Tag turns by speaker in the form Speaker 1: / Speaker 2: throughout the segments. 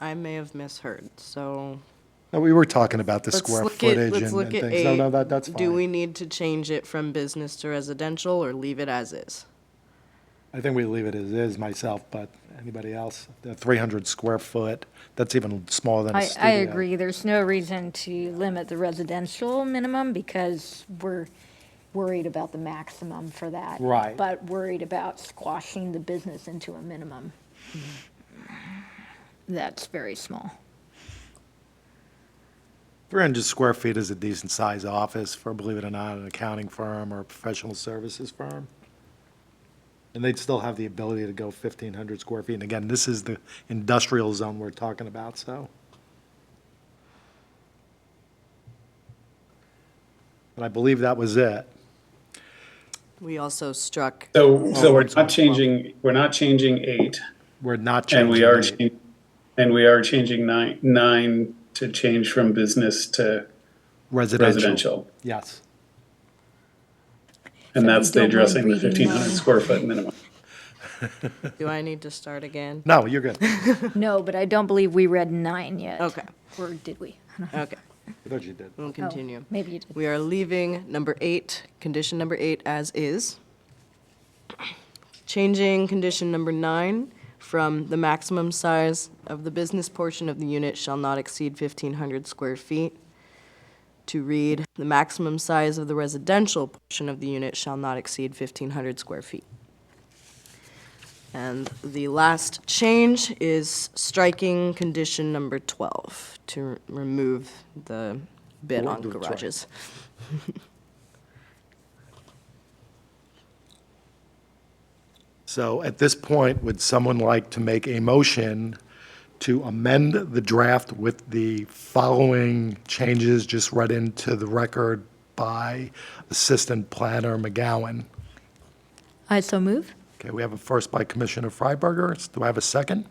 Speaker 1: I may have misheard, so.
Speaker 2: No, we were talking about the
Speaker 1: let's
Speaker 2: square
Speaker 1: look at-
Speaker 2: footage and
Speaker 1: let's
Speaker 2: and
Speaker 1: look at
Speaker 2: things. No, no,
Speaker 1: eight.
Speaker 2: that, that's
Speaker 1: Do we
Speaker 2: fine.
Speaker 1: need to change it from business to residential or leave it as is?
Speaker 2: I think we leave it as is myself, but anybody else? The 300 square foot, that's even smaller than a
Speaker 3: I,
Speaker 2: studio.
Speaker 3: I agree, there's no reason to limit the residential minimum because we're worried about the maximum for that.
Speaker 2: Right.
Speaker 3: But worried about squashing the business into a minimum.
Speaker 1: Mm-hmm.
Speaker 3: That's very small.
Speaker 2: 300 square feet is a decent sized office for, believe it or not, an accounting firm or a professional services firm. And they'd still have the ability to go 1,500 square feet. And again, this is the industrial zone we're talking about, so. But I believe that was it.
Speaker 1: We also struck,
Speaker 4: So,
Speaker 2: Oh,
Speaker 4: so we're
Speaker 2: I'm sorry.
Speaker 4: not changing, we're not changing eight,
Speaker 2: We're not
Speaker 4: and
Speaker 2: changing.
Speaker 4: we are,
Speaker 2: the-
Speaker 4: chang- and we are changing nine, nine to change from business to residential.
Speaker 2: Yes.
Speaker 4: And
Speaker 3: So
Speaker 4: that's
Speaker 3: we
Speaker 4: the
Speaker 3: don't mind
Speaker 4: addressing the
Speaker 3: reading
Speaker 4: fifteen hundred
Speaker 3: mine.
Speaker 4: square foot minimum.
Speaker 1: do I need to start again?
Speaker 2: No, you're good. I
Speaker 3: No, but I don't believe we read nine yet.
Speaker 1: Okay.
Speaker 3: Or did we?
Speaker 1: Okay,
Speaker 2: thought you did.
Speaker 1: we'll
Speaker 3: Oh,
Speaker 1: continue.
Speaker 3: Maybe you did.
Speaker 1: We are leaving number eight, condition number eight as is. Changing condition number nine from the maximum size of the business portion of the unit shall not exceed fifteen hundred square feet to read, the maximum size of the residential portion of the unit shall not exceed fifteen hundred square feet. And the last change is striking condition number twelve to r- remove the bid
Speaker 2: Well,
Speaker 1: on
Speaker 2: do it twice.
Speaker 1: garages.
Speaker 2: So at this point, would someone like to make a motion to amend the draft with the following changes just read into the record by Assistant Planner McGowan?
Speaker 3: I so move?
Speaker 2: Okay, we have a first by Commissioner Freiberger. Do I have a second?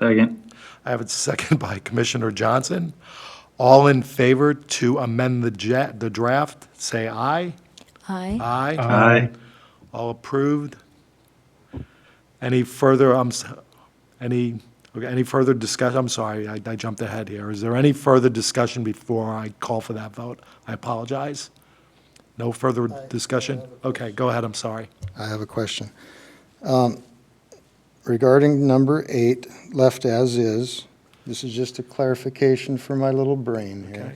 Speaker 5: Second.
Speaker 2: I have a second by Commissioner Johnson. All in favor to amend the ja- the draft, say aye.
Speaker 3: Aye.
Speaker 2: Aye.
Speaker 5: Aye.
Speaker 2: All approved? Any further, I'm, s- any, okay, any further discussion? I'm sorry, I I jumped ahead here. Is there any further discussion before I call for that vote? I apologize. No further discussion? Okay, go ahead, I'm sorry.
Speaker 6: I have a question. Um, Regarding number eight, left as is, this is just a clarification for my little brain here.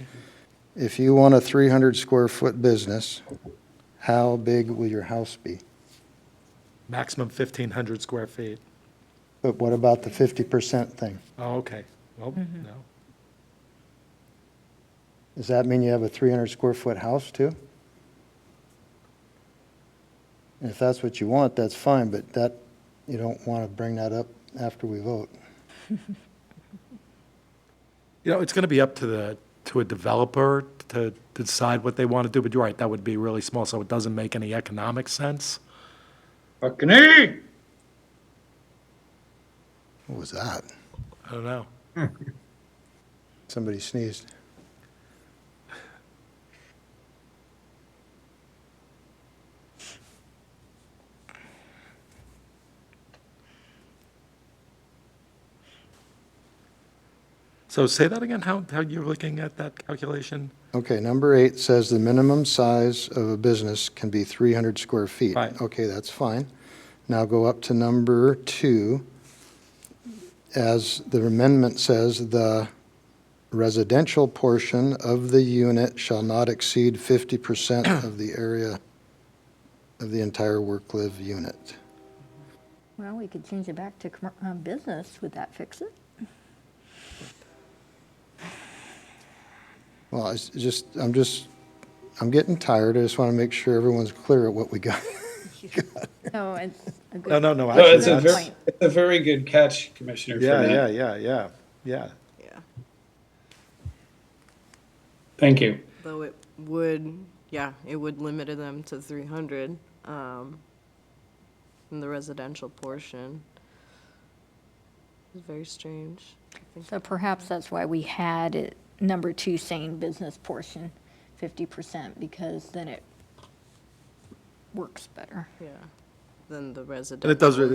Speaker 6: If you want a 300-square-foot business, how big will your house be?
Speaker 2: Maximum 1,500 square feet.
Speaker 6: But what about the 50% thing?
Speaker 2: Oh, okay. Well, no.
Speaker 6: Does that mean you have a 300-square-foot house, too? And If that's what you want, that's fine, but that, you don't want to bring that up after we vote.
Speaker 2: You know, it's going to be up to the, to a developer to decide what they want to do, but you're right, that would be really small, so it doesn't make any economic sense.
Speaker 4: Buccaneer!
Speaker 6: What was that?
Speaker 2: I don't know.
Speaker 6: Somebody sneezed.
Speaker 2: So say that again, how, how you're looking at that calculation?
Speaker 6: Okay, number eight says the minimum size of a business can be 300 square feet.
Speaker 2: Right.
Speaker 6: Okay, that's fine. Now go up to number two. As the amendment says, the residential portion of the unit shall not exceed 50% of the area of the entire work-live unit.
Speaker 3: Well, we could change it back to commer- uh, business. Would that fix it?
Speaker 6: Well, it's just, I'm just, I'm getting tired. I just want to make sure everyone's clear at what we got.
Speaker 3: No, it's a good.
Speaker 2: No, no, no,
Speaker 4: No, it's
Speaker 2: actually,
Speaker 4: a
Speaker 3: that's-
Speaker 4: very, it's a very good catch, Commissioner, for
Speaker 2: yeah, yeah,
Speaker 4: that.
Speaker 2: yeah, yeah, yeah.
Speaker 1: Yeah,
Speaker 4: Thank you.
Speaker 1: though it would, yeah, it would limit them to three hundred, um, in the residential portion. It's Very strange. I think
Speaker 3: So perhaps that's why we had it, number two saying business portion, fifty percent, because then it works better.
Speaker 1: Yeah, than the residential.
Speaker 2: And it does,